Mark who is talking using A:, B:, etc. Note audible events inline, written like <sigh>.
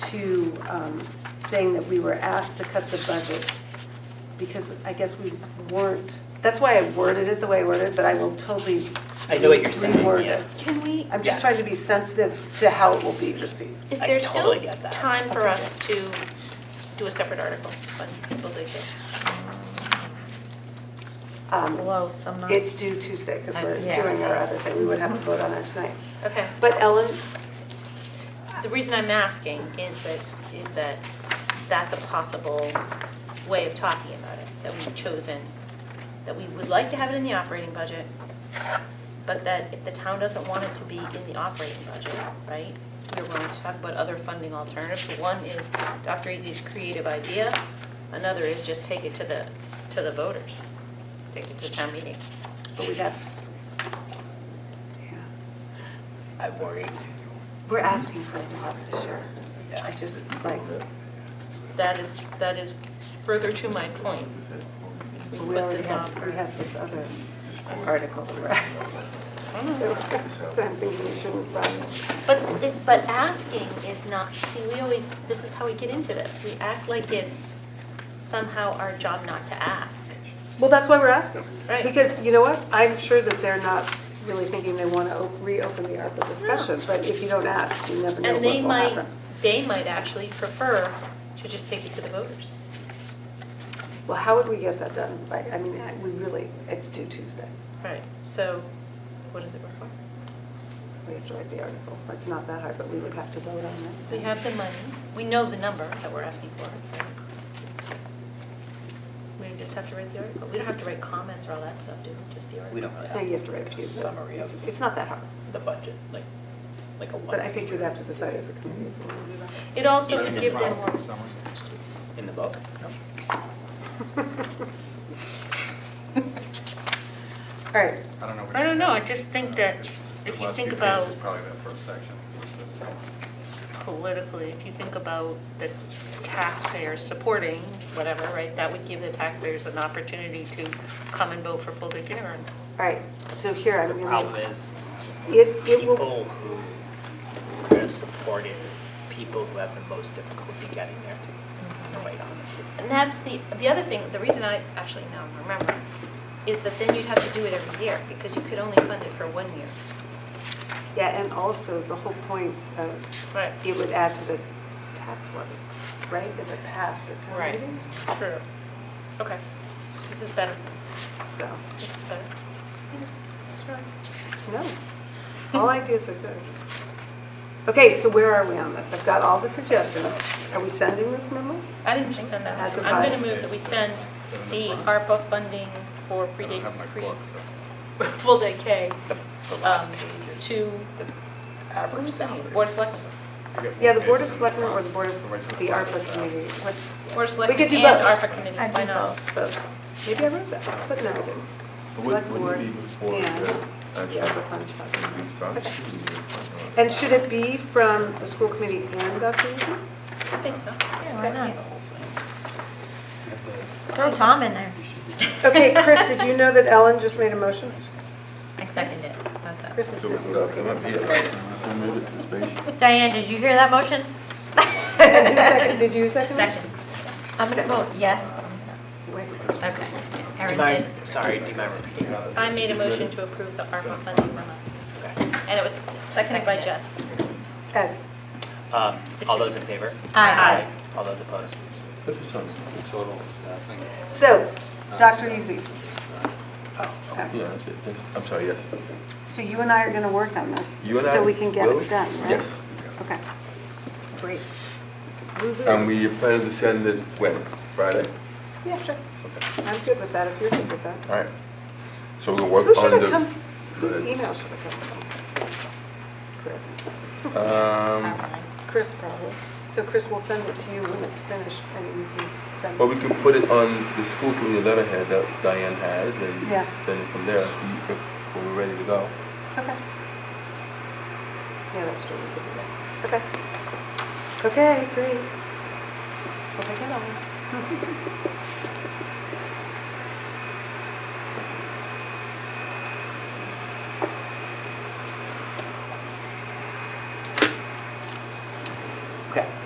A: to um, saying that we were asked to cut the budget, because I guess we weren't, that's why I worded it the way I worded it, but I will totally.
B: I know what you're saying,
A: reword
B: yeah.
A: it.
C: Can we,
A: I'm just
B: Yeah.
A: trying to be sensitive to how it will be received.
C: is
B: I
C: there
B: totally
C: still
B: get that.
C: time for us to do a separate article when people dig it?
A: Um,
D: Below, some not.
A: It's due Tuesday, because we're
D: Yeah.
A: doing our other thing, we would have a vote on that tonight.
C: Okay.
A: But Ellen,
C: The reason I'm asking is that, is that that's a possible way of talking about it, that we've chosen, that we would like to have it in the operating budget, but that if the town doesn't want it to be in the operating budget, right? We're willing to talk about other funding alternatives. One is Dr. Easy's creative idea, another is just take it to the, to the voters, take it to town meeting.
A: but we'd have,
B: I'm worried.
A: we're asking for a lot this year. I just, like,
C: That is, that is further to my point. We
A: we
C: put
A: already
C: this off.
A: have, we have this other article. that we're-
C: <laughs>
A: I'm thinking we shouldn't run.
C: But, it- but asking is not, see, we always, this is how we get into this. We act like it's somehow our job not to ask.
A: Well, that's why we're asking.
C: Right.
A: Because, you know what, I'm sure that they're not really thinking they want to reopen the ARPA discussion, but if you don't ask, you never know what
C: And they
A: will
C: might,
A: happen.
C: they might actually prefer to just take it to the voters.
A: Well, how would we get that done? Like, I mean, I- we really, it's due Tuesday.
C: Right. So what does it require?
A: We have to write the article. It's not that hard, but we would have to vote on it.
C: We have the money, we know the number that we're asking for. It's- it's- We just have to write the article. We don't have to write comments or all that stuff, do we? Just the article.
B: We don't really
A: Now you have
B: have
A: to write a
B: a
A: few. but
B: summary
A: it's-
B: of
A: It's not that hard,
B: the budget, like, like a one.
A: but I think we'd have to decide as a committee. if we wanna do that.
C: It also
B: It's
C: would
B: in
C: give them
B: progress.
C: more.
B: In the book? No.
A: <laughs> All right,
E: I don't know. what
C: I
E: you
C: don't know, I
E: said.
C: just think that if you
E: Last
C: think
E: few pages,
C: about
E: Probably that first section. was this.
C: politically, if you think about the taxpayers supporting whatever, right, that would give the taxpayers an opportunity to come and vote for full-day kindergarten.
A: all right, so here I'm
B: The
A: going to.
B: problem is,
A: It, it will.
B: people who are going to support it, people who have the most difficulty getting there,
A: Mm-hmm.
B: to, quite honestly.
C: And that's the, the other thing, the reason I, actually now I'm remembering, is that then you'd have to do it every year, because you could only fund it for one year.
A: Yeah, and also the whole point of,
C: Right.
A: it would add to the tax levy, right, if it passed at town
C: Right,
A: meeting?
C: true. Okay, this is better,
A: So,
C: this is better. Sorry.
A: no, all ideas are good. Okay, so where are we on this? I've got all the suggestions. Are we sending this memo?
C: I didn't think send that.
A: As
C: I'm going
A: advised.
C: to move that we send the ARPA funding for
E: I don't
C: pre-day,
E: have my
C: pre,
E: book, so.
C: full day K
B: The, the last
C: Um,
B: page is
C: to-
B: the average salary.
C: Board of Selectmen.
E: I get
A: Yeah,
E: one
A: the Board
E: page
A: of Selectmen or the Board
E: So wait
A: of,
E: till
A: the ARPA
E: it's out.
A: committee, what's?
C: Board of
A: We could
C: Selectmen
A: do
C: and
A: both.
C: ARPA committee,
D: I do
C: why not?
A: But Maybe I wrote that, but no, I didn't.
F: So would-
A: Select board
F: Wouldn't it be before the
A: and the
F: actual
A: ARPA fund stuff.
F: meeting starts?
A: Okay. And should it be from the school committee and Dr. Egan?
C: I think so.
D: Why not? Throw Tom in there.
A: Okay, Chris, did you know that Ellen just made a motion?
D: I second it.
A: Chris is
F: So
A: busy
F: would that
A: looking
F: come
A: at
F: up here?
A: something.
F: So move it to space.
D: Diane, did you hear that motion?
A: And who seconded-
D: <laughs>
A: Did you second? it?
D: I'm gonna vote yes, but I'm
A: Wait.
D: gonna, okay.
B: Do you
D: Erin
B: mind,
D: said,
B: sorry, do you mind repeating that?
C: I made a motion to approve the ARPA funding memo,
B: Okay.
C: and it was seconded by Jess.
A: Ed,
B: Um, All those in favor?
D: aye.
B: All those opposed?
F: Put this on.
G: The total staffing.
A: So, Dr. Easy, Oh,
F: Yeah, that's it. Thanks. I'm sorry, yes.
A: so you and I are going to work on this?
F: You and I
A: So we can get
F: will?
A: it done, right?
F: Yes.
A: Okay. Great.
F: And Um, we plan to send it when? Friday?
A: Yeah, sure. I'm good with that, if you're good with that.
F: All right. So we're gonna
A: Who
F: work on
A: should have come,
F: the.
A: whose email should have come from? Chris. <laughs>
F: Um,
A: Chris probably. So Chris will send it to you when it's finished, and you can send it.
F: But we can put it on the school committee letterhead that Diane has
A: Yeah.
F: and send it from there if we- if we're ready to go.
A: Okay. Yeah, that's true, we could do that. Okay. Okay, great. We'll take it on.
B: Okay.